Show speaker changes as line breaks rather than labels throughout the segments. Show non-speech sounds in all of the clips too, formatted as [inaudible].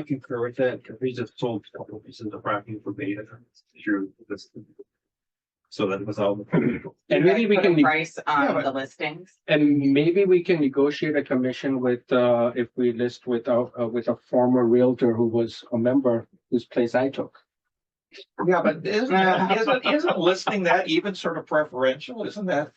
I concur with that, because we just sold a couple pieces of property for beta through this. So that was all.
And maybe we
Put a
can, neg-
Price
Yeah, but-
on the listings.
and maybe we can negotiate a commission with, uh, if we list with a, uh, with a former realtor who was a member whose place I took.
Yeah, but isn't,
Uh,
isn't, isn't listing that even sort of preferential? Isn't that?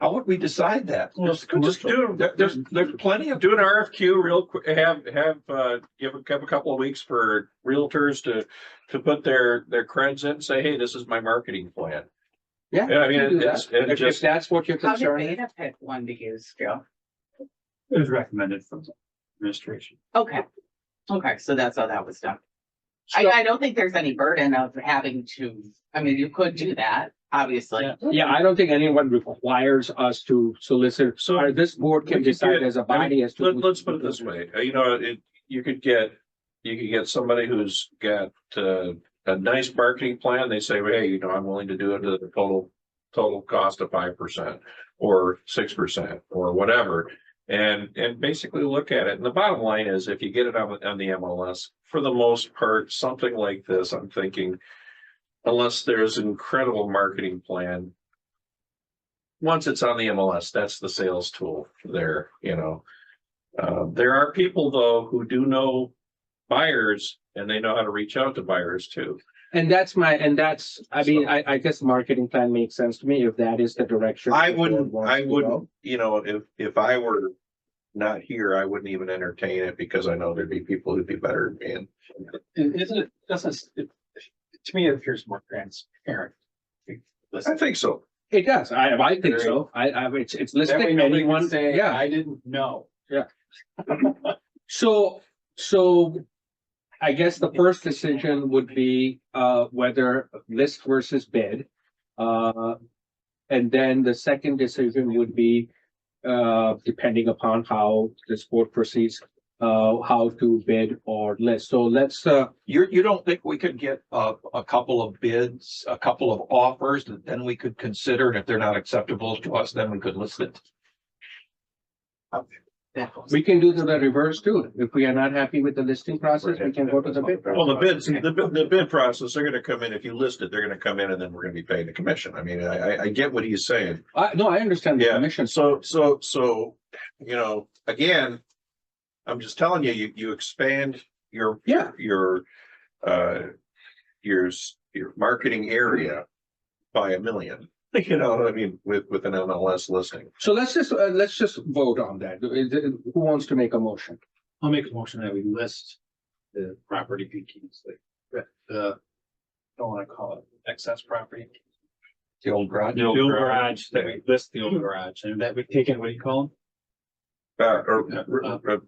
How would we decide that?
Just, just do,
There- there's, there's plenty of,
do an RFQ real quick, have, have, uh, give a, have a couple of weeks for realtors to, to put their, their creds in, say, hey, this is my marketing plan.
Yeah.
Yeah, I
we can do
mean,
that.
it's, it
If, if
just,
that's what you're
How did
concerned, with.
Beta pick one to use, Joe?
It was recommended from the administration.
Okay. Okay, so that's how that was done. I, I don't think there's any burden of having to, I mean, you could do that, obviously.
yeah, I don't think anyone requires us to solicit,
So-
or this board can
We could
decide
get-
as a
I mean,
body as to.
let,
who-
let's put it this way, uh, you know, it, you could get, you could get somebody who's got, uh, a nice marketing plan, they say, hey, you know, I'm willing to do it at the total, total cost of five percent or six percent or whatever. And, and basically look at it. And the bottom line is if you get it on, on the MLS, for the most part, something like this, I'm thinking, unless there's an incredible marketing plan, once it's on the MLS, that's the sales tool there, you know. Uh, there are people though who do know buyers and they know how to reach out to buyers too.
And that's my, and that's, I mean,
So-
I, I guess marketing plan makes sense to me if that is the direction.
I
the board
wouldn't,
wants
I
to go.
wouldn't, you know, if, if I were not here, I wouldn't even entertain it because I know there'd be people who'd be better than me. And
It isn't, it doesn't, it, to me, it appears more transparent.
I think so.
It does. I, I think so. I, I, it's, it's
That way
listing
nobody can
anyone,
say,
yeah.
I didn't know.
So, so I guess the first decision would be, uh, whether list versus bid. Uh, and then the second decision would be, uh, depending upon how this board proceeds, uh, how to bid or list. So let's, uh,
you're, you don't think we could get a, a couple of bids, a couple of offers that then we could consider? And if they're not acceptable to us, then we could list it.
We can do the the reverse too. If we are not happy with the listing process, we can go to the bid.
Well, the bids, the, bid- the bid process, they're gonna come in, if you list it, they're gonna come in and then we're gonna be paying the commission. I mean, I, I, I get what he's saying.
I, no, I understand the
Yeah.
commission.
So, so, so, you know, again, I'm just telling you, you, you expand your,
Yeah.
your, uh, your, s- your marketing area by a million, [laughs] you know, what I mean, with, with an MLS listing.
So let's just, uh, let's just vote on that. Is it- Who wants to make a motion?
I'll make a motion that we list the property PQs, like, uh, don't wanna call it excess property.
The old garage.
The old garage, that we list the old garage, and that we take in, what do you call
Uh, or, re- re-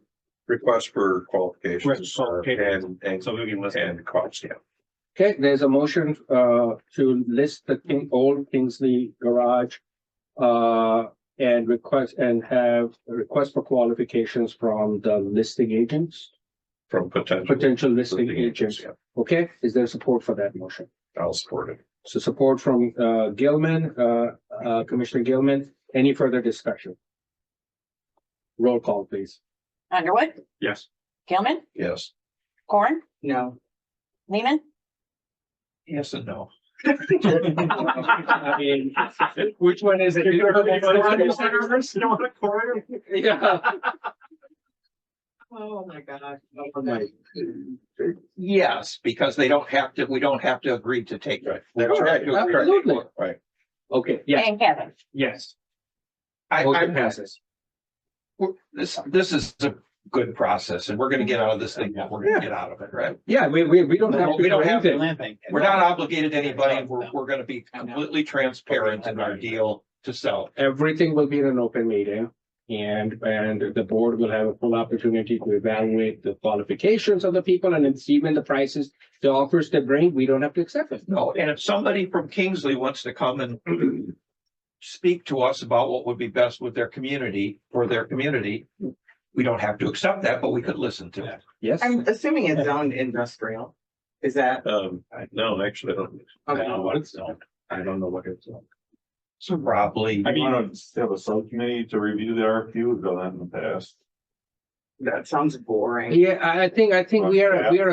request for qualifications uh, and,
them?
and,
So we can list.
and cost, yeah.
Okay, there's a motion, uh, to list the King, old Kingsley garage, uh, and request, and have a request for qualifications from the listing agents,
From potential.
potential listing
listing agents,
agents. Okay, is there support for that motion?
yeah. I'll support it.
So support from, uh, Gilman, uh, uh, Commissioner Gilman. Any further discussion? Roll call, please.
Underwood,
Yes.
Gilman,
Yes.
Corn,
No.
Lehman,
Yes and no.
I mean, Which one is it? Yeah.
Oh, my God.
Yes, because they don't have to, we don't have to agree to take.
Right.
That's right.
Absolutely.
Right.
Okay, yes,
and Kevin.
yes.
I,
Motion
I'm,
passes.
we're- this, this is a good process and we're gonna get out of this thing, what we're gonna get out of it, right?
Yeah, we, we, we don't have to.
We don't
do
have to
anything.
We're not obligated to anybody. We're, we're gonna be completely transparent in our deal to sell.
Everything will be in an open meeting. And, and the board will have a full opportunity to evaluate the qualifications of the people and it's even the prices, the offers they bring, we don't have to accept it.
No, and if somebody from Kingsley wants to come and speak to us about what would be best with their community, for their community, we don't have to accept that, but we could listen to it.
Yes,
[clears throat] I'm assuming it's zoned industrial. Is that?
Um, no, actually, I don't,
I don't know what it's on.
I don't know what it's.
So probably.
I mean, have a subcommittee to review the RFQ, we've done that in the past.
That sounds boring.
Yeah, I, I think, I think we are, we are